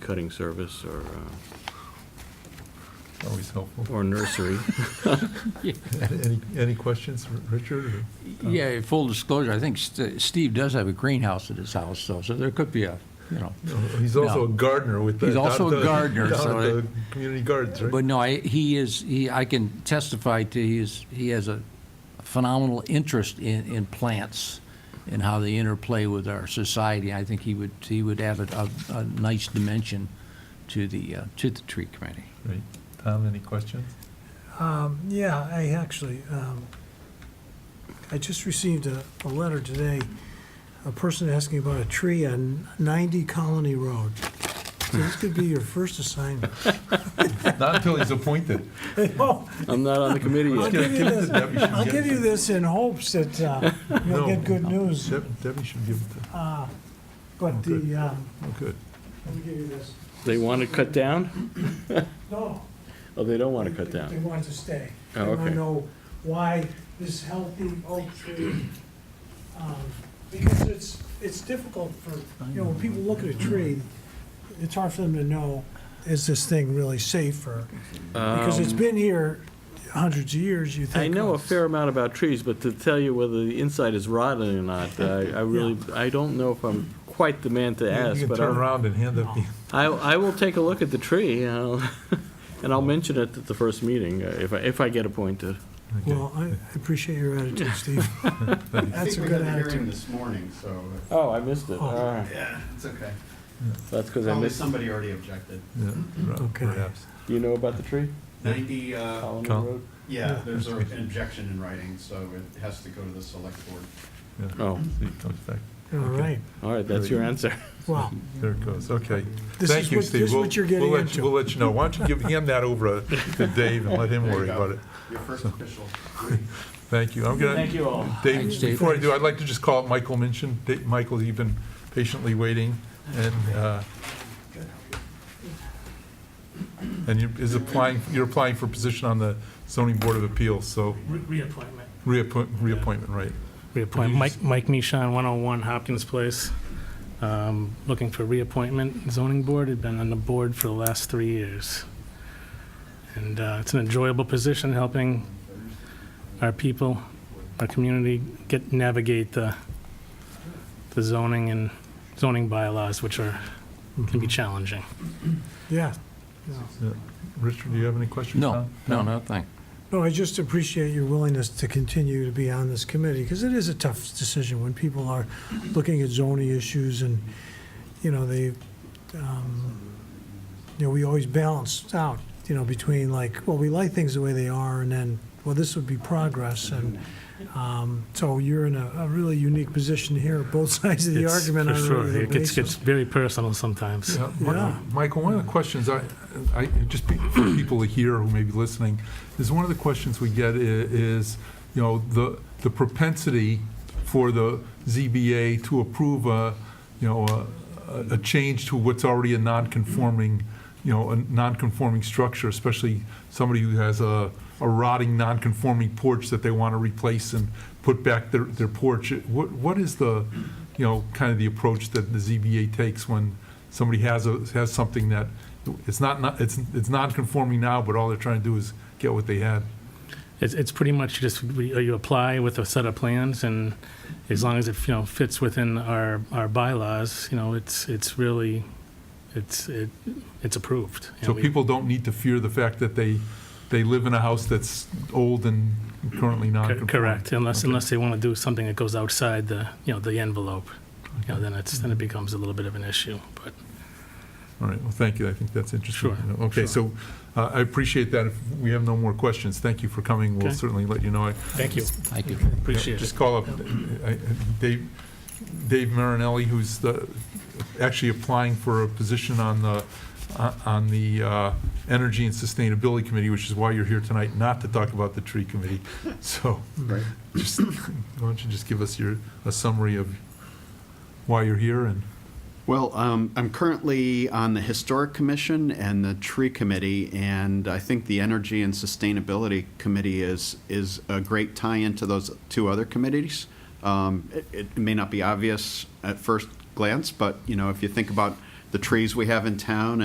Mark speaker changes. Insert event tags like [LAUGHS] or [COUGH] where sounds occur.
Speaker 1: cutting service or, uh,
Speaker 2: Always helpful.
Speaker 1: or nursery. [LAUGHS]
Speaker 2: Any, any questions, R- Richard? or Tom?
Speaker 3: Yeah, full disclosure, I think St- Steve does have a greenhouse at his house, though, so there could be a, you know.
Speaker 2: No, He's also a
Speaker 3: No.
Speaker 2: gardener with the.
Speaker 3: He's
Speaker 2: down
Speaker 3: also
Speaker 2: at
Speaker 3: a
Speaker 2: the-
Speaker 3: gardener,
Speaker 2: down
Speaker 3: so
Speaker 2: at
Speaker 3: it-
Speaker 2: the Community gardens, right?
Speaker 3: But no, I, he is, he, I can testify to, he is, he has a phenomenal interest in, in plants and how they interplay with our society. I think he would, he would add a, a, a nice dimension to the, uh, to the tree committee.
Speaker 2: Right. Tom, any questions?
Speaker 4: Um, yeah, I actually, um, I just received a, a letter today, a person asking about a tree on ninety Colony Road. So this could be your first assignment. [LAUGHS]
Speaker 2: Not until he's appointed.
Speaker 4: Oh,
Speaker 1: I'm not on the committee
Speaker 4: I'll
Speaker 1: yet.
Speaker 4: give you this,
Speaker 2: Debbie should
Speaker 4: I'll
Speaker 2: get
Speaker 4: give you
Speaker 2: it.
Speaker 4: this in hopes that, uh,
Speaker 2: No.
Speaker 4: you'll get good news,
Speaker 2: Deb- Debbie should give it to,
Speaker 4: uh, but the, um,
Speaker 2: oh, good.
Speaker 4: let me give you this.
Speaker 1: They want to cut down?
Speaker 4: No.
Speaker 1: Oh, they don't want to cut
Speaker 4: They
Speaker 1: down.
Speaker 4: want to stay.
Speaker 1: Oh,
Speaker 4: They want
Speaker 1: okay.
Speaker 4: to know why this healthy oak tree, um, because it's, it's difficult for, you know, when people look at a tree, it's hard for them to know, is this thing really safer? Because it's
Speaker 1: Um,
Speaker 4: been here hundreds of years, you think.
Speaker 1: I know
Speaker 4: "Oh,
Speaker 1: a fair amount about trees, but to tell you whether the inside is rotten or not, [LAUGHS] I, I really, I don't know if I'm quite the man to ask,
Speaker 2: You can
Speaker 1: but
Speaker 2: turn
Speaker 1: I'll-
Speaker 2: around and hand up. the-
Speaker 1: I, I will take a look at the tree, and I'll, [LAUGHS] and I'll mention it at the first meeting, uh, if I, if I get appointed.
Speaker 2: Okay.
Speaker 4: Well, I I appreciate your attitude,
Speaker 1: [LAUGHS]
Speaker 4: Steve. That's a
Speaker 5: I
Speaker 4: good
Speaker 5: think we had a hearing
Speaker 4: attitude.
Speaker 5: this morning, so
Speaker 1: Oh, I missed it.
Speaker 4: Oh.
Speaker 1: All right.
Speaker 5: it's okay.
Speaker 1: That's because I
Speaker 5: Only
Speaker 1: missed,
Speaker 5: somebody already objected.
Speaker 2: Yeah, right,
Speaker 4: Okay.
Speaker 2: Perhaps.
Speaker 1: do you know about the tree?
Speaker 5: Ninety, uh,
Speaker 1: Colony
Speaker 2: Col-
Speaker 1: Road?
Speaker 5: yeah, there's a- an objection in writing, so it has to go to the select board.
Speaker 2: Yeah.
Speaker 1: Oh,
Speaker 2: See, it comes back.
Speaker 4: All right,
Speaker 1: all right, that's your answer.
Speaker 4: well,
Speaker 2: There it goes, okay.
Speaker 4: This
Speaker 2: Thank
Speaker 4: is
Speaker 2: you,
Speaker 4: what-
Speaker 2: Steve.
Speaker 4: this is
Speaker 2: We'll-
Speaker 4: what you're getting
Speaker 2: we'll let-
Speaker 4: into.
Speaker 2: We'll let you know. Why don't you
Speaker 4: [LAUGHS]
Speaker 2: give hand that over uh, to Dave and let him
Speaker 5: There you
Speaker 2: worry
Speaker 5: go.
Speaker 2: about it.
Speaker 5: Your first official.
Speaker 2: Thank you. I'm gonna.
Speaker 1: Thank you all.
Speaker 2: Dave,
Speaker 3: Thanks, Dave.
Speaker 2: before I do, I'd like to just call up Michael Minchin. Da- Michael, you've been patiently waiting, and, uh, and you- is applying, you're applying for a position on the zoning board of appeals, so
Speaker 6: Re- Reappointment.
Speaker 2: reappoint, reappointment, right?
Speaker 6: Reappoint, Mike, Mike Mishon, 101 Hopkins Place. Um, Looking for reappointment, zoning board, had been on the board for the last three years. And uh, it's an enjoyable position, helping our people, our community get, navigate the, the zoning and zoning bylaws, which are, can
Speaker 4: Mm-hmm.
Speaker 6: be challenging.
Speaker 4: yeah. yeah.
Speaker 2: Yeah. Richard, do you have any questions?
Speaker 3: No,
Speaker 2: Tom?
Speaker 3: no, no, thank.
Speaker 4: No, I just appreciate your willingness to continue to be on this committee, because it is a tough decision when people are looking at zoning issues and, you know, they, um, you know, we always balance out, you know, between like, well, we like things the way they are, and then, well, this would be progress, and, um, so you're in a, a really unique position here, both [LAUGHS] sides of the
Speaker 6: It's-
Speaker 4: argument
Speaker 6: for
Speaker 4: on a
Speaker 6: sure.
Speaker 4: regular
Speaker 6: It gets, gets
Speaker 4: basis.
Speaker 6: very personal sometimes.
Speaker 2: Yeah, Mi-
Speaker 4: Yeah.
Speaker 2: Michael, one of the questions I, I, just be- for people here who may be listening, is one of the questions we get i- is, you know, the, the propensity for the ZBA to approve a, you know, a- a, a change to what's already a non-conforming, you know, a non-conforming structure, especially somebody who has a, a rotting, non-conforming porch that they want to replace and put back their, their porch. What, what is the, you know, kind of the approach that the ZBA takes when somebody has a, has something that, it's not, not- it's, it's non-conforming now, but all they're trying to do is get what they had.
Speaker 6: It's, it's pretty much just, we- you apply with a set of plans, and as long as it, you know, fits within our, our bylaws, you know, it's, it's really, it's, it, it's approved. And
Speaker 2: So
Speaker 6: we-
Speaker 2: people don't need to fear the fact that they, they live in a house that's old and currently
Speaker 6: Cor-
Speaker 2: non-conforming.
Speaker 6: Correct, unless,
Speaker 2: Okay.
Speaker 6: unless they want to do something that goes outside the, you know, the envelope, you know, then it's, then it becomes a little bit of an issue, but.
Speaker 2: All right, well, thank you, I think that's interesting.
Speaker 6: Sure,
Speaker 2: Okay, so uh, I appreciate that, if we have no more questions, thank you for coming, we'll
Speaker 6: Okay.
Speaker 2: certainly let you know. I-
Speaker 6: Thank you.
Speaker 3: Thank you.
Speaker 6: Appreciate it.
Speaker 2: Just call up I- I- Dave, Dave Marinelli, who's the, actually applying for a position on the, on the uh, Energy and Sustainability Committee, which is why you're here tonight, not to talk about the tree committee. [LAUGHS] So,
Speaker 5: Right.
Speaker 2: just, why don't you just give us your, a summary of why you're here and,
Speaker 5: Well, um, I'm currently on the Historic Commission and the Tree Committee, and I think the Energy and Sustainability Committee is, is a great tie-in to those two other committees. Um, It it may not be obvious at first glance, but, you know, if you think about the trees we have in town